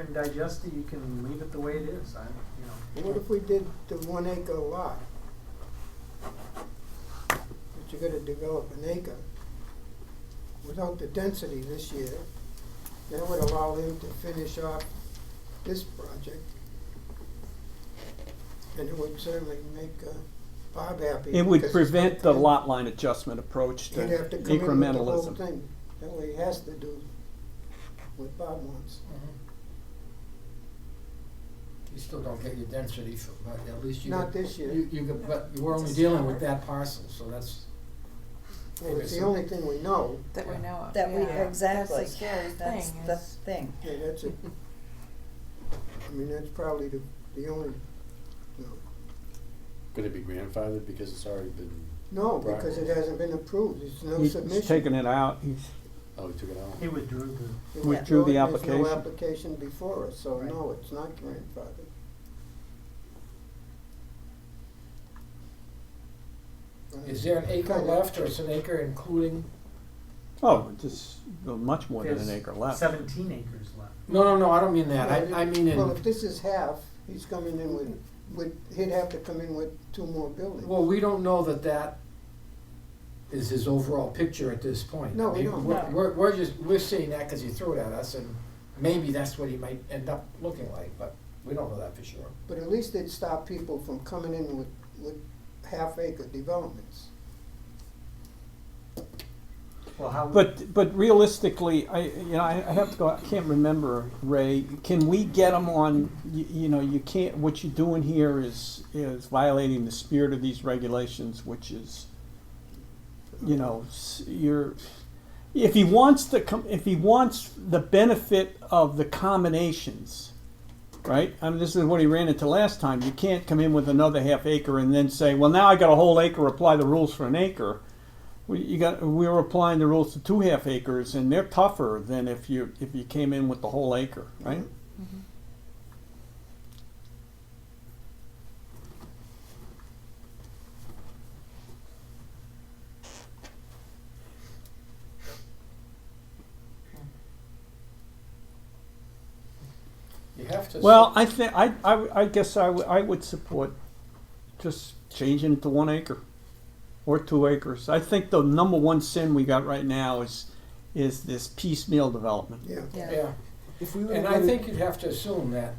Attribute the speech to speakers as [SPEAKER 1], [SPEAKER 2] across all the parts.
[SPEAKER 1] and digest it, you can leave it the way it is, I, you know.
[SPEAKER 2] What if we did the one acre lot? But you're gonna develop an acre without the density this year. That would allow them to finish off this project. And it would certainly make uh, Bob happy.
[SPEAKER 3] It would
[SPEAKER 2] because
[SPEAKER 3] prevent the
[SPEAKER 2] he'd-
[SPEAKER 3] lot line adjustment approach to
[SPEAKER 2] He'd have to come in with the whole
[SPEAKER 3] incrementalism.
[SPEAKER 2] thing. That way he has to do what Bob wants.
[SPEAKER 4] Mm-hmm. You still don't get your density, so- but at least you.
[SPEAKER 2] Not
[SPEAKER 4] get-
[SPEAKER 2] this year.
[SPEAKER 4] You, you, get- but you were only dealing with that parcel, so that's,
[SPEAKER 2] And it's the only thing we know.
[SPEAKER 5] That we know of.
[SPEAKER 6] That we,
[SPEAKER 5] yeah.
[SPEAKER 6] exactly.
[SPEAKER 5] That's the scary
[SPEAKER 6] That's
[SPEAKER 5] thing.
[SPEAKER 6] the
[SPEAKER 5] is-
[SPEAKER 6] thing.
[SPEAKER 2] Yeah, that's it. I mean, that's probably the, the only, no.
[SPEAKER 7] Could it be grandfathered because it's already been,
[SPEAKER 2] No, because it hasn't been approved, it's no
[SPEAKER 3] He's
[SPEAKER 2] submission.
[SPEAKER 3] taken it out, he's,
[SPEAKER 7] oh, we took it out?
[SPEAKER 1] He withdrew the,
[SPEAKER 2] It was
[SPEAKER 3] withdrew the
[SPEAKER 2] brought- There's
[SPEAKER 3] application.
[SPEAKER 2] no application before us, so
[SPEAKER 1] Right.
[SPEAKER 2] no, it's not grandfathered. Mm-hmm.
[SPEAKER 4] is there an acre left or is an acre including?
[SPEAKER 3] oh, just uh, much more than an acre left.
[SPEAKER 1] seventeen acres left.
[SPEAKER 4] No, no, no, I don't mean that, I, I mean
[SPEAKER 2] Well,
[SPEAKER 4] in,
[SPEAKER 2] if this is half, he's coming in with, with, he'd have to come in with two more buildings.
[SPEAKER 4] well, we don't know that that is his overall picture at this point.
[SPEAKER 2] No, we
[SPEAKER 4] I mean,
[SPEAKER 2] don't.
[SPEAKER 4] We're,
[SPEAKER 6] No.
[SPEAKER 4] we're, we're just, we're seeing that because he threw it at us and maybe that's what he might end up looking like, but we don't know that for sure.
[SPEAKER 2] But at least it'd stop people from coming in with, with half acre developments.
[SPEAKER 1] Well, how,
[SPEAKER 3] But, but realistically, I, you know, I I have to go, I can't remember, Ray, can we get them on, you, you know, you can't, what you're doing here is, is violating the spirit of these regulations, which is, you know, s- you're, if he wants to come, if he wants the benefit of the combinations, right? I mean, this is what he ran into last time, you can't come in with another half acre and then say, well, now I got a whole acre, apply the rules for an acre. We, you got, we were applying the rules to two half acres, and they're tougher than if you, if you came in with the whole acre, right?
[SPEAKER 4] You have to.
[SPEAKER 3] Well, I think, I, I, I guess I, w- I would support just changing it to one acre or two acres. I think the number one sin we got right now is, is this piecemeal development.
[SPEAKER 2] Yeah.
[SPEAKER 6] Yeah.
[SPEAKER 4] Yeah.
[SPEAKER 2] If we
[SPEAKER 4] And I think you'd have to assume that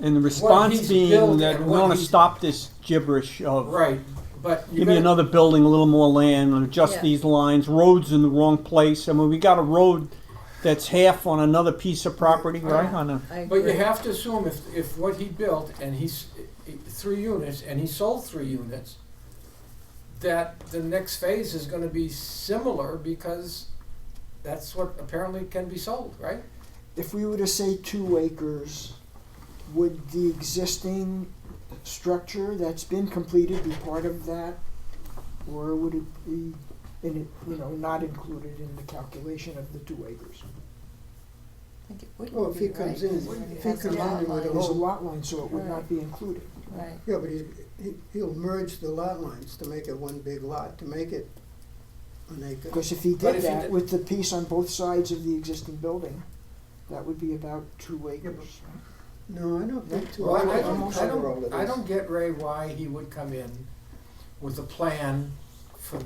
[SPEAKER 3] And the response
[SPEAKER 4] he's
[SPEAKER 3] being
[SPEAKER 4] built
[SPEAKER 3] that
[SPEAKER 4] and
[SPEAKER 3] we
[SPEAKER 4] what
[SPEAKER 3] wanna
[SPEAKER 4] he's-
[SPEAKER 3] stop this gibberish of
[SPEAKER 4] Right, but
[SPEAKER 3] Give
[SPEAKER 4] you
[SPEAKER 3] me
[SPEAKER 4] gotta-
[SPEAKER 3] another building, a little more land, and adjust
[SPEAKER 6] Yeah.
[SPEAKER 3] these lines, roads in the wrong place. I mean, we got a road that's half on another piece of property, right, on a,
[SPEAKER 6] I
[SPEAKER 4] But you
[SPEAKER 6] agree.
[SPEAKER 4] have to assume if, if what he built and he's, three units, and he sold three units, that the next phase is gonna be similar because that's what apparently can be sold, right?
[SPEAKER 8] If we were to say two acres, would the existing structure that's been completed be part of that? Or would it be, in it, you know, not included in the calculation of the two acres?
[SPEAKER 5] I think it would
[SPEAKER 2] Well, if
[SPEAKER 5] be,
[SPEAKER 2] he comes
[SPEAKER 5] right,
[SPEAKER 2] in-
[SPEAKER 5] because already
[SPEAKER 2] if he
[SPEAKER 5] has a
[SPEAKER 2] comes in
[SPEAKER 5] lot
[SPEAKER 2] with a
[SPEAKER 5] line.
[SPEAKER 8] There's a lot line, so it would not be included.
[SPEAKER 5] Right,
[SPEAKER 2] Yeah, but he's, he, he'll merge the lot lines to make it one big lot, to make it an acre.
[SPEAKER 8] Because if he
[SPEAKER 4] But if
[SPEAKER 8] did
[SPEAKER 4] he
[SPEAKER 8] that
[SPEAKER 4] did-
[SPEAKER 8] with the piece on both sides of the existing building, that would be about two acres.
[SPEAKER 2] No, I don't think two
[SPEAKER 4] Well, I
[SPEAKER 2] acres
[SPEAKER 4] don't,
[SPEAKER 2] will
[SPEAKER 4] I
[SPEAKER 2] cover all of
[SPEAKER 4] don't,
[SPEAKER 2] this.
[SPEAKER 4] I don't get Ray why he would come in with a plan for,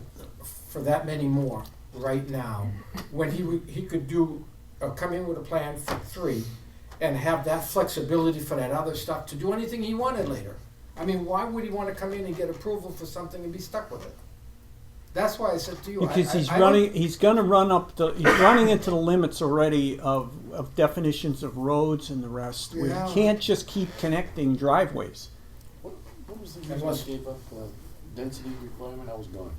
[SPEAKER 4] for that many more right now, when he would, he could do, or come in with a plan for three, and have that flexibility for that other stuff to do anything he wanted later. I mean, why would he wanna come in and get approval for something and be stuck with it? That's why I said to you, I, I,
[SPEAKER 3] because he's
[SPEAKER 4] I don't-
[SPEAKER 3] running, he's gonna run up the, he's running into the limits already of, of definitions of roads and the rest. We
[SPEAKER 2] Yeah.
[SPEAKER 3] can't just keep connecting driveways.
[SPEAKER 7] What was the
[SPEAKER 4] And
[SPEAKER 7] reason
[SPEAKER 4] what's-
[SPEAKER 7] we gave up the density requirement? I was gone.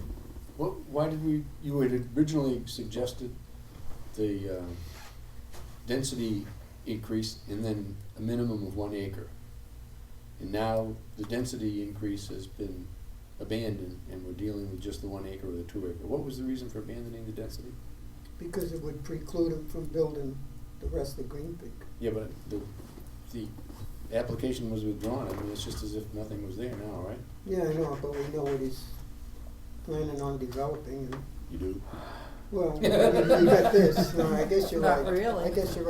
[SPEAKER 7] What, why did we, you had originally suggested the, uh, density increase and then a minimum of one acre. And now the density increase has been abandoned and we're dealing with just the one acre or the two acre. What was the reason for abandoning the density?
[SPEAKER 2] Because it would preclude him from building the rest of Green Peak.
[SPEAKER 7] Yeah, but the, the application was withdrawn. I mean, it's just as if nothing was there now, right?
[SPEAKER 2] Yeah, I know, but we know what he's planning on developing, and
[SPEAKER 7] You do?
[SPEAKER 2] Well, you got this, no, I guess you're
[SPEAKER 5] Not
[SPEAKER 2] right.
[SPEAKER 5] really.
[SPEAKER 2] I guess you're right.